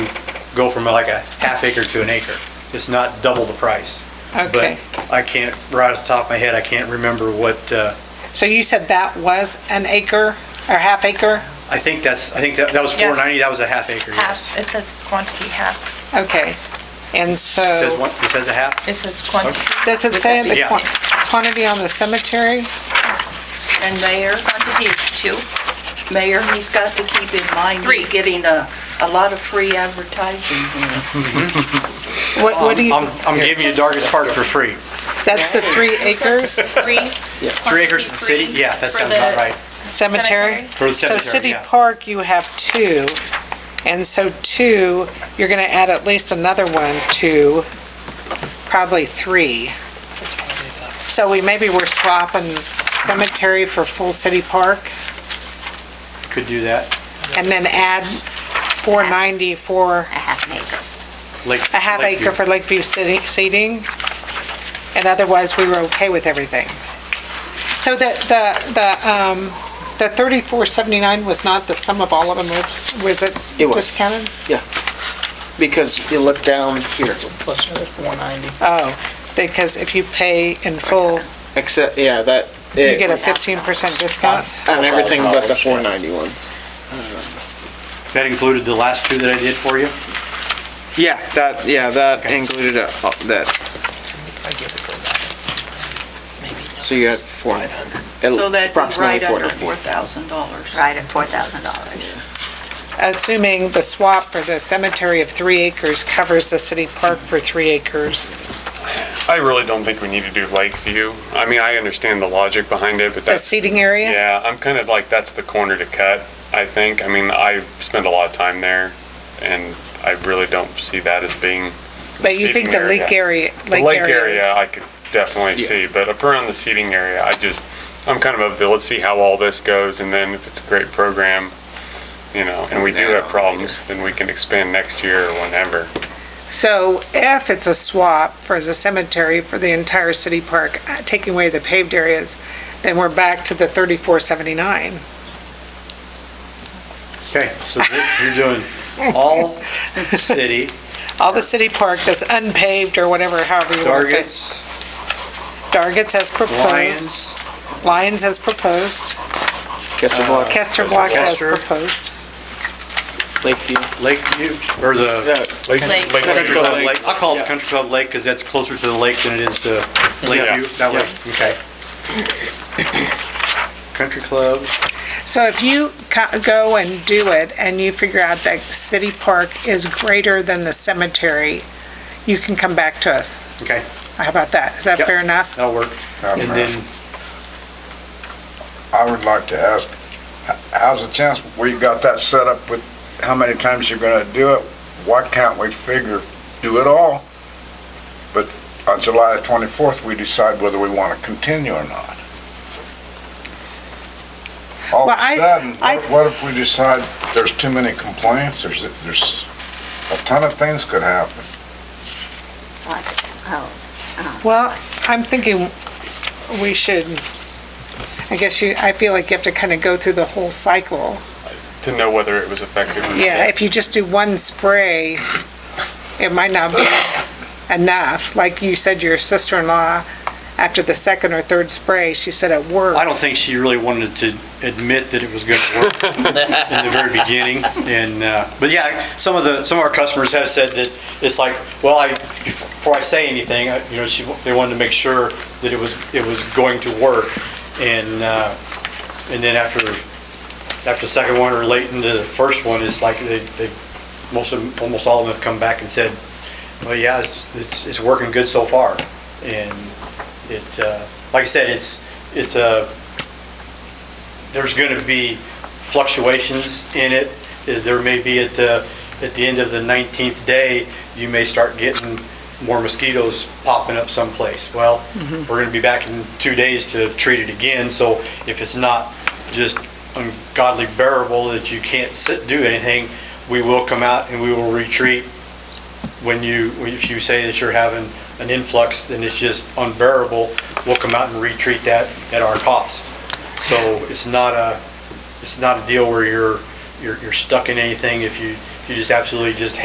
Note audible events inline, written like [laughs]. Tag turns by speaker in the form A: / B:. A: go from like a half acre to an acre. It's not double the price.
B: Okay.
A: But I can't, right off the top of my head, I can't remember what, uh,
B: So you said that was an acre or half acre?
A: I think that's, I think that that was
C: Yeah.
A: 490, that was a half acre, yes.
C: Half, it says quantity half.
B: Okay. And
A: It says
B: so,
A: one, it says a half?
C: It says quantity.
B: does it say the
A: Yeah.
B: quan- quantity on the cemetery?
D: And Mayor,
C: Quantity, it's two.
D: Mayor, he's got to keep in mind,
C: Three.
D: he's getting a, a lot of free advertising here.
B: What, what do
A: I'm,
B: you,
A: I'm giving you the darkest part for free.
B: that's the three
C: It says
B: acres
C: Three.
A: Three acres for the city? Yeah, that sounds about right.
B: cemetery?
A: For the
B: So
A: cemetery,
B: city
A: yeah.
B: park, you have two. And so two, you're going to add at least another one, two, probably three. So we, maybe we're swapping cemetery for full city park
A: Could do that.
B: and then add 490 for
E: a half an acre.
A: Lake-
B: a half
A: Lakeview.
B: acre for Lakeview city seating, and otherwise, we were okay with everything. So the, the, the, um, the thirty-four seventy-nine was not the sum of all of them, was- was it?
F: It was.
B: Discounted?
F: Yeah, because you look down here,
G: Plus another 490.
B: Oh, because if you pay in full,
F: except, yeah, that,
B: you get a
F: it-
B: fifteen percent discount?
F: on everything but the
G: $12,000.
F: 491.
A: That included the last two that I did for you?
F: Yeah, that, yeah, that included a- uh, that,
G: I give it for that. Maybe not.
F: so you had four.
G: 500.
D: So that'd be
F: approximately
D: right under
F: 490.
D: $4,000.
E: Right, at four thousand dollars.
B: Assuming the swap for the cemetery of three acres covers the city park for three acres.
H: I really don't think we need to do Lakeview. I mean, I understand the logic behind it, but
B: The
H: that's,
B: seating area?
H: yeah, I'm kind of like, that's the corner to cut, I think. I mean, I spend a lot of time there, and I really don't see that as being.
B: But you think the
H: seating
B: lake area,
H: The
B: lake area is?
H: I could definitely see, but up around the seating area, I just, I'm kind of of the, let's see how all this goes, and then if it's a great program, you know, and we do have problems, then we can expand next year or whenever.
B: So if it's a swap for the cemetery for the entire city park, uh, taking away the paved areas, then we're back to the thirty-four seventy-nine.
A: Okay, so you're doing
B: [laughs]
A: all city,
B: All the city park that's unpaved or whatever, however you want to say.
A: targets,
B: Dargits as proposed,
A: lions,
B: Lyons as proposed,
F: Guess the block,
B: Kester Blocks as
A: Kester.
B: proposed.
F: Lakeview.
A: Lakeview, or the
F: Yeah,
C: Lake.
A: Country Club
F: Lake.
A: Lake. I call it the Country Club Lake because that's closer to the lake than it is to Lakeview. That way, okay. Country Club,
B: So if you co- go and do it and you figure out that city park is greater than the cemetery, you can come back to us.
A: okay,
B: How about that? Is that
A: Yep.
B: fair enough?
A: that'll work. And then,
I: I would like to ask, h- how's the chance, we got that set up with how many times you're gonna do it? Why can't we figure, do it all? But on July 24th, we decide whether we wanna continue or not. All
B: Well,
I: of
B: I-
I: a sudden,
B: I-
I: what- what if we decide there's too many complaints, there's, there's a ton of things could happen.
E: What? Oh,
B: Well, I'm thinking we should, I guess you, I feel like you have to kind of go through the whole cycle.
H: To know whether it was effective or not.
B: Yeah, if you just do one spray, it might not be enough. Like you said, your sister-in-law, after the second or third spray, she said it worked.
A: I don't think she really wanted to admit that it was going to work in the very beginning. And, uh, but yeah, some of the, some of our customers have said that it's like, well, I, before I say anything, I- you know, she, they wanted to make sure that it was, it was going to work. And, uh, and then after, after the second one or late into the first one, it's like they, they, most of, them- almost all of them have come back and said, well, yeah, it's, it's, it's working good so far. And it, uh, like I said, it's, it's a, there's going to be fluctuations in it. There may be at the, at the end of the 19th day, you may start getting more mosquitoes popping up someplace. Well, we're going to be back in two days to treat it again, so if it's not just ungodly bearable that you can't sit, do anything, we will come out and we will retreat when you, if you say that you're having an influx and it's just unbearable, we'll come out and retreat that at our cost. So it's not a, it's not a deal where you're, you're, you're stuck in anything if you, if you just absolutely just